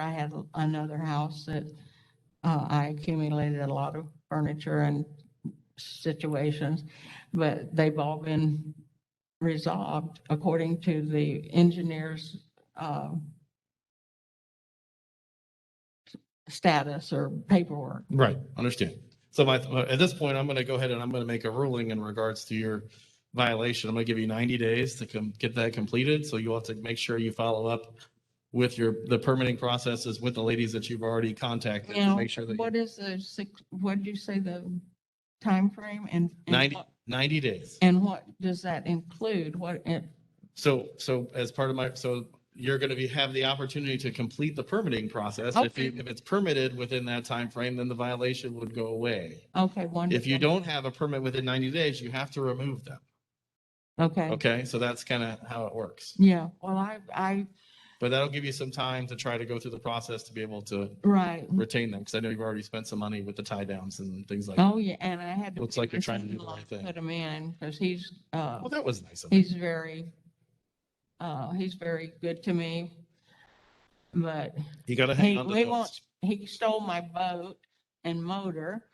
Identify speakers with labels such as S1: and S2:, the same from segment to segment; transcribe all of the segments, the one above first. S1: I had another house that uh, I accumulated a lot of furniture and situations, but they've all been resolved according to the engineer's um, status or paperwork.
S2: Right, understand. So my, at this point, I'm going to go ahead and I'm going to make a ruling in regards to your violation. I'm going to give you 90 days to com- get that completed. So you'll have to make sure you follow up with your, the permitting processes with the ladies that you've already contacted to
S1: Now,
S2: make sure that you-
S1: What is the, six- what'd you say the time frame and? and
S2: 90,
S1: what-
S2: 90 days.
S1: And what does that include? What, it-
S2: So, so as part of my, so you're going to be, have the opportunity to complete the permitting process. If you,
S1: Okay.
S2: if it's permitted within that time frame, then the violation would go away.
S1: okay, wonderful.
S2: If you don't have a permit within 90 days, you have to remove them.
S1: Okay,
S2: Okay, so that's kind of how it works.
S1: yeah, well, I, I,
S2: But that'll give you some time to try to go through the process to be able to
S1: right,
S2: retain them, because I know you've already spent some money with the tie downs and things like. that.
S1: Oh, yeah, and I had to.
S2: Looks like you're
S1: figure
S2: trying to do the
S1: something like
S2: right thing.
S1: Put him in, because he's, uh,
S2: Well, that was nice of you.
S1: he's very, uh, he's very good to me. But
S2: You gotta hang
S1: he,
S2: on to
S1: he
S2: those.
S1: wants, he stole my boat and motor,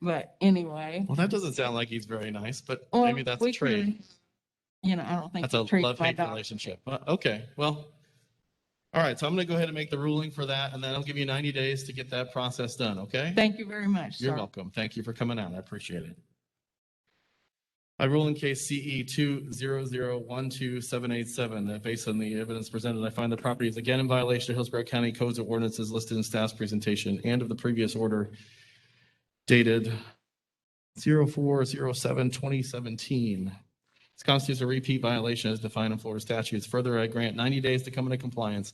S1: but anyway.
S2: Well, that doesn't sound like he's very nice, but
S1: well,
S2: maybe that's a
S1: we
S2: trade.
S1: can- You know, I don't think.
S2: That's a
S1: he treats my
S2: love-hate
S1: dog-
S2: relationship. Uh, Okay, well. All right, so I'm gonna go ahead and make the ruling for that, and then I'll give you 90 days to get that process done, okay?
S1: Thank you very much,
S2: You're
S1: sir.
S2: welcome. Thank you for coming out. I appreciate it. I rule in case CE two zero zero one two seven eight seven, that based on the evidence presented, I find the property is again in violation of Hillsborough County Codes of Ordinances listed in staff's presentation and of the previous order dated 0407 This constitutes a repeat violation as defined in Florida statutes. Further, I grant ninety days to come into compliance.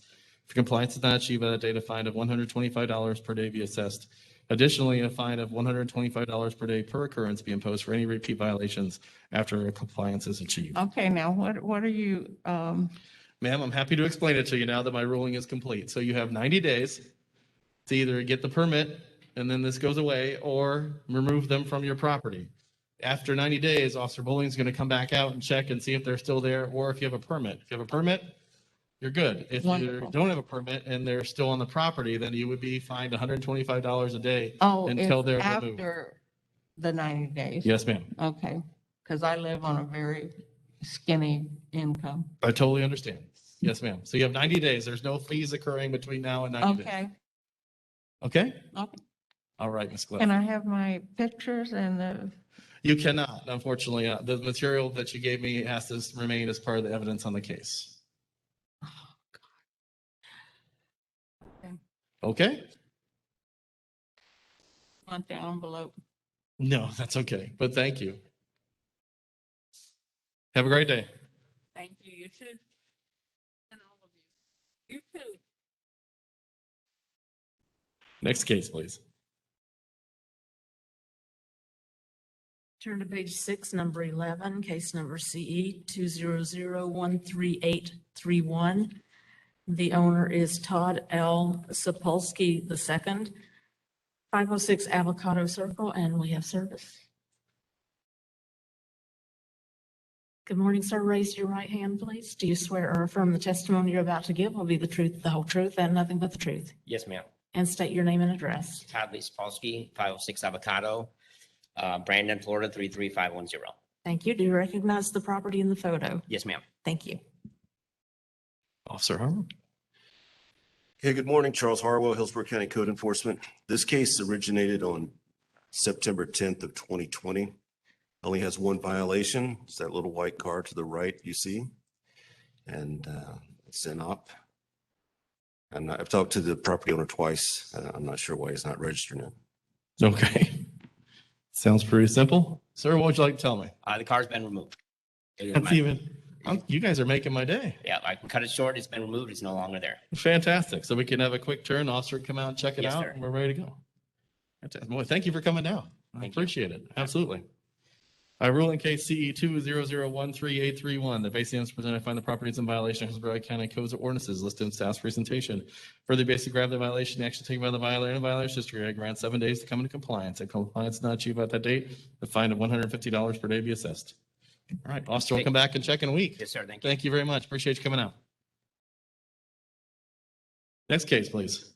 S2: If compliance is not achieved by that date, a fine of one hundred twenty-five dollars per day be assessed. Additionally, a fine of one hundred twenty-five dollars per day per occurrence be imposed for any repeat violations after compliance is achieved.
S1: Okay, now what, what are you, um,
S2: Ma'am, I'm happy to explain it to you now that my ruling is complete. So you have ninety days to either get the permit and then this goes away or remove them from your property. After ninety days, Officer Bowling's gonna come back out and check and see if they're still there or if you have a permit. If you have a permit, you're good. If you
S1: Wonderful.
S2: don't have a permit and they're still on the property, then you would be fined hundred and twenty-five dollars a day.
S1: oh,
S2: Until they're
S1: it's
S2: removed.
S1: after the ninety days?
S2: Yes, ma'am.
S1: Okay, because I live on a very skinny income.
S2: I totally understand. Yes, ma'am. So you have ninety days. There's no fees occurring between now and ninety days.
S1: Okay,
S2: Okay?
S1: Okay.
S2: All right, Ms. Glenn.
S1: can I have my pictures and the,
S2: You cannot, unfortunately. Uh, The material that you gave me has to remain as part of the evidence on the case. Okay?
S1: want the envelope?
S2: No, that's okay, but thank you. Have a great day.
S3: Thank you, you too. And all of you. You too.
S2: Next case, please.
S3: Turn to page six, number eleven, case number CE two zero zero one three eight three one. The owner is Todd L. Sapolsky the second, five oh six Avocado Circle, and we have service. Good morning, sir. Raise your right hand, please. Do you swear or affirm the testimony you're about to give will be the truth, the whole truth, and nothing but the truth?
S4: Yes, ma'am.
S3: And state your name and address.
S4: Todd Lee Sapolsky, five oh six Avocado, uh, Brandon, Florida, three three five one zero.
S3: Thank you. Do you recognize the property in the photo?
S4: Yes, ma'am.
S3: Thank you.
S2: Officer Harmon.
S5: Hey, good morning, Charles Harwell, Hillsborough County Code Enforcement. This case originated on September tenth of twenty twenty. Only has one violation. It's that little white car to the right you see. And uh, it's an op. And I've talked to the property owner twice. Uh, I'm not sure why he's not registering it.
S2: Okay. Sounds pretty simple. Sir, what would you like to tell me?
S4: Uh, the car's been removed. It is
S2: That's
S4: my-
S2: even, I'm- you guys are making my day.
S4: Yeah, I can cut it short. It's been removed. It's no longer there.
S2: Fantastic. So we can have a quick turn, officer, come out and check it
S4: Yes,
S2: out,
S4: sir.
S2: and we're ready to go. Fantastic. Boy, thank you for coming down. I
S4: Thank you.
S2: appreciate it. Absolutely. I rule in case CE two zero zero one three eight three one, the basic evidence presented, I find the property is in violation of Hillsborough County Codes of Ordinances listed in staff's presentation. Further, basic grab the violation, the action taken by the violator and violator's history, I grant seven days to come into compliance. If compliance is not achieved by that date, the fine of one hundred and fifty dollars per day be assessed. All right, officer, we'll come back and check in a week.
S4: Yes, sir. Thank you.
S2: Thank you very much. Appreciate you coming out. Next case, please.